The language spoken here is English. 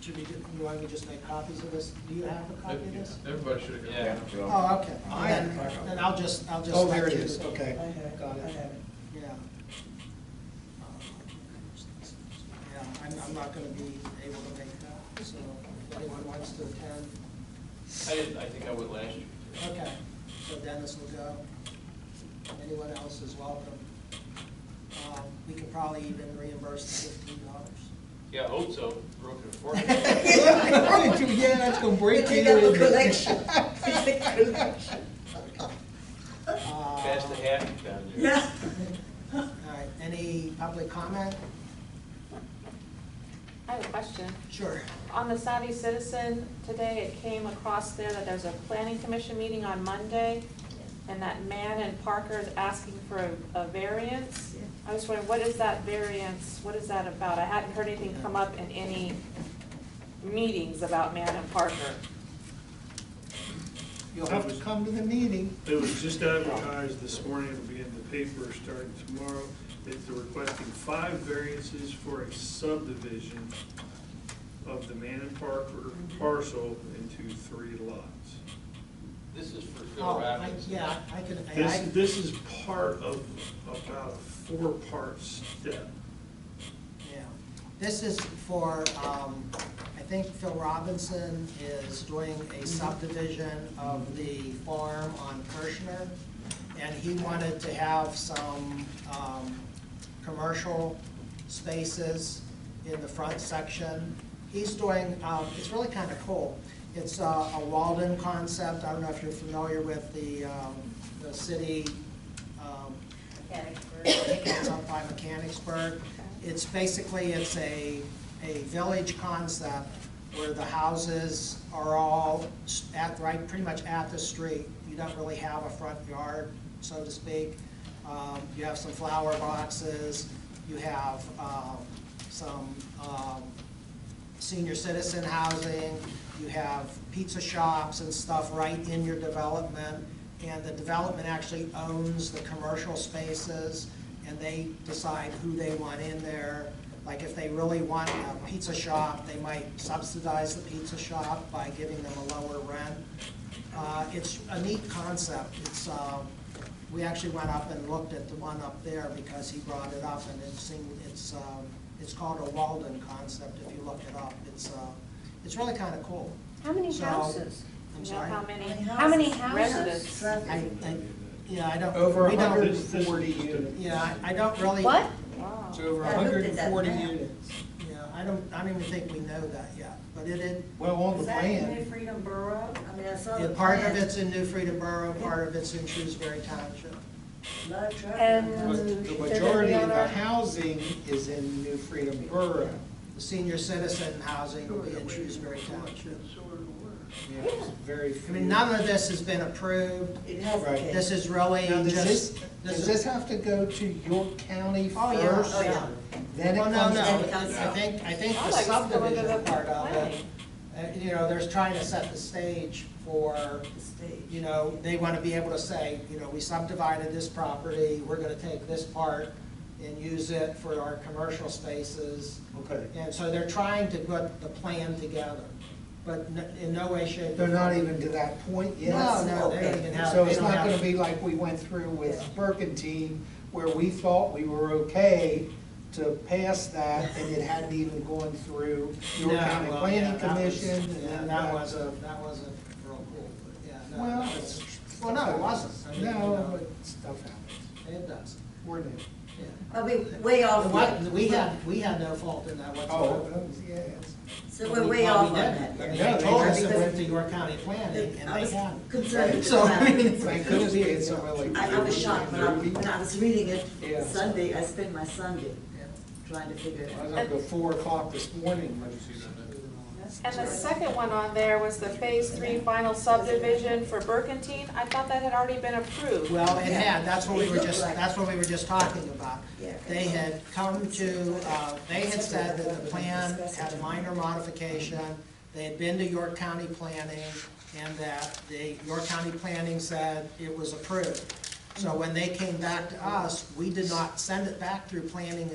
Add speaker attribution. Speaker 1: Should we, do you want me to just make copies of this? Do you have a copy of this?
Speaker 2: Everybody should have got
Speaker 3: Yeah.
Speaker 2: one.
Speaker 3: Yeah.
Speaker 1: Oh, okay.
Speaker 4: I had a question.
Speaker 1: Then I'll just, I'll just.
Speaker 4: Oh, there it
Speaker 1: select
Speaker 4: is, okay.
Speaker 1: Got
Speaker 4: I
Speaker 1: it.
Speaker 4: have it, I have it.
Speaker 1: Yeah. Yeah, I'm, I'm not gonna be able to make that, so if anyone wants to attend,
Speaker 3: I did, I think I would last year.
Speaker 1: okay, so Dennis will go. Anyone else is welcome. Um, We could probably even reimburse the fifteen dollars.
Speaker 3: Yeah, I hope so, broken and fork.
Speaker 1: Yeah, that's gonna break
Speaker 4: Take
Speaker 1: you
Speaker 4: out the
Speaker 1: in.
Speaker 4: collection. Take the collection.
Speaker 1: Uh,
Speaker 3: Pass the hat down there.
Speaker 4: Yeah.
Speaker 1: All right, any public comment?
Speaker 5: I have a question.
Speaker 1: Sure.
Speaker 5: On the savvy citizen today, it came across there that there's a planning commission meeting on Monday, and that Mann and Parker is asking for a, a variance. I was wondering, what is that variance, what is that about? I hadn't heard anything come up in any meetings about Mann and Parker.
Speaker 1: You'll have to come to the meeting.
Speaker 6: It was just advertised this morning, it'll be in the paper starting tomorrow, that they're requesting five variances for a subdivision of the Manon Parker parcel into three lots.
Speaker 3: This is for Phil
Speaker 1: Oh, I-
Speaker 3: Robbins.
Speaker 1: yeah, I can, I-
Speaker 6: This,
Speaker 1: I,
Speaker 6: this is part of about a four-part step.
Speaker 1: yeah. This is for, um, I think Phil Robinson is doing a subdivision of the farm on Kirshner, and he wanted to have some, um, commercial spaces in the front section. He's doing, um, it's really kind of cool. It's a a Walden concept. I don't know if you're familiar with the, um, the city, um, It's up by Mechanicsburg. It's basically, it's a, a village concept where the houses are all s- at, right, pretty much at the street. You don't really have a front yard, so to speak. Um, You have some flower boxes, you have um, some um, senior citizen housing, you have pizza shops and stuff right in your development, and the development actually owns the commercial spaces, and they decide who they want in there. Like, if they really want a pizza shop, they might subsidize the pizza shop by giving them a lower rent. Uh, It's a neat concept, it's, um, we actually went up and looked at the one up there because he brought it up, and it seemed, it's, um, it's called a Walden concept, if you look it up. It's, uh, it's really kind of cool.
Speaker 7: How many
Speaker 1: So-
Speaker 7: houses?
Speaker 1: I'm
Speaker 5: You know,
Speaker 1: sorry?
Speaker 5: how many?
Speaker 7: How many houses?
Speaker 5: Residents.
Speaker 1: I, I, yeah, I don't.
Speaker 4: Over
Speaker 1: we don't-
Speaker 4: hundred and forty units.
Speaker 1: Yeah, I I don't really.
Speaker 7: What?
Speaker 5: Wow.
Speaker 4: It's over
Speaker 7: I looked
Speaker 4: hundred
Speaker 7: at
Speaker 4: and
Speaker 7: that
Speaker 4: forty
Speaker 7: map.
Speaker 4: units.
Speaker 1: Yeah, I don't, I don't even think we know that yet, but it, it,
Speaker 4: Well, on the
Speaker 8: Is that in New
Speaker 4: plan,
Speaker 8: Freedom Borough?
Speaker 7: I mean, I saw the
Speaker 1: it- part of
Speaker 7: plan.
Speaker 1: it's in New Freedom Borough, part of it's in Shrewsbury Township.
Speaker 8: Lot of traffic.
Speaker 7: And-
Speaker 4: but
Speaker 7: They're
Speaker 4: the
Speaker 7: gonna be
Speaker 4: majority of
Speaker 7: on
Speaker 4: the
Speaker 7: our-
Speaker 4: housing is in New Freedom Borough.
Speaker 1: The senior citizen housing will be in Shrewsbury Township.
Speaker 4: Yeah, it's Very
Speaker 1: I
Speaker 4: few.
Speaker 1: mean, none of this has been approved.
Speaker 7: It has
Speaker 4: Right.
Speaker 7: been.
Speaker 1: This is really
Speaker 4: Now, does this,
Speaker 1: just.
Speaker 4: does
Speaker 1: is-
Speaker 4: this have to go to York County
Speaker 1: Oh, yeah,
Speaker 4: first?
Speaker 1: oh, yeah.
Speaker 4: Then it
Speaker 1: Well,
Speaker 4: comes.
Speaker 1: no, no,
Speaker 7: it comes
Speaker 1: I
Speaker 7: out.
Speaker 1: think, I think
Speaker 5: I
Speaker 1: the
Speaker 5: like going to
Speaker 1: subdivision
Speaker 5: the
Speaker 1: part of it,
Speaker 5: planning.
Speaker 1: uh, you know, there's trying to set the stage for,
Speaker 8: The stage.
Speaker 1: you know, they want to be able to say, you know, we subdivided this property, we're going to take this part and use it for our commercial spaces.
Speaker 4: Okay.
Speaker 1: And so they're trying to put the plan together, but n- in no way, shape. or
Speaker 4: They're not
Speaker 1: form-
Speaker 4: even to that point yet.
Speaker 1: No, no, they don't even have.
Speaker 4: So
Speaker 1: they
Speaker 4: it's
Speaker 1: don't
Speaker 4: not
Speaker 1: have-
Speaker 4: gonna be like we went through with Burkentine, where we thought we were okay to pass that, and it hadn't even gone through York
Speaker 1: No,
Speaker 4: County
Speaker 1: well,
Speaker 4: Planning
Speaker 1: yeah, that was-
Speaker 4: Commission.
Speaker 1: yeah,
Speaker 4: and
Speaker 1: That was a, that wasn't real cool, but yeah, no.
Speaker 4: Well,
Speaker 1: that was-
Speaker 4: it's.
Speaker 1: Well, no, it wasn't. I mean, you
Speaker 4: No,
Speaker 1: know,
Speaker 4: but stuff happens.
Speaker 1: It does,
Speaker 4: We're new.
Speaker 1: yeah.
Speaker 7: I'll be way
Speaker 1: Oh,
Speaker 7: off.
Speaker 1: what-
Speaker 7: on-
Speaker 1: we had, we had no fault in that
Speaker 4: Oh,
Speaker 1: whatsoever.
Speaker 4: those, yes.
Speaker 7: So we're way
Speaker 1: Well, we
Speaker 7: off on
Speaker 1: didn't.
Speaker 7: that.
Speaker 1: I mean,
Speaker 4: No,
Speaker 1: They
Speaker 4: they
Speaker 1: told
Speaker 4: were-
Speaker 1: us it went to York County Planning, and
Speaker 7: I
Speaker 1: they
Speaker 7: was
Speaker 1: had.
Speaker 7: concerned with
Speaker 1: So, I mean,
Speaker 7: the
Speaker 1: it's
Speaker 7: time.
Speaker 4: Thank goodness we had somewhere like.
Speaker 7: I I was shocked when I,
Speaker 4: Ruby.
Speaker 7: when I was reading
Speaker 4: Yeah.
Speaker 7: it Sunday, I spent my Sunday
Speaker 1: yeah.
Speaker 7: trying to figure it
Speaker 4: I was
Speaker 7: out.
Speaker 4: up till four o'clock this morning.
Speaker 2: Did you see that?
Speaker 5: And the second one on there was the phase three final subdivision for Burkentine. I thought that had already been approved.
Speaker 1: Well, it had, that's what we were just,
Speaker 7: It looked like-
Speaker 1: that's what we were just talking about.
Speaker 7: Yeah.
Speaker 1: They had come to, uh, they had said that the plan had a minor modification, they had been to York County Planning, and that the York County Planning said it was approved. So when they came back to us, we did not send it back through planning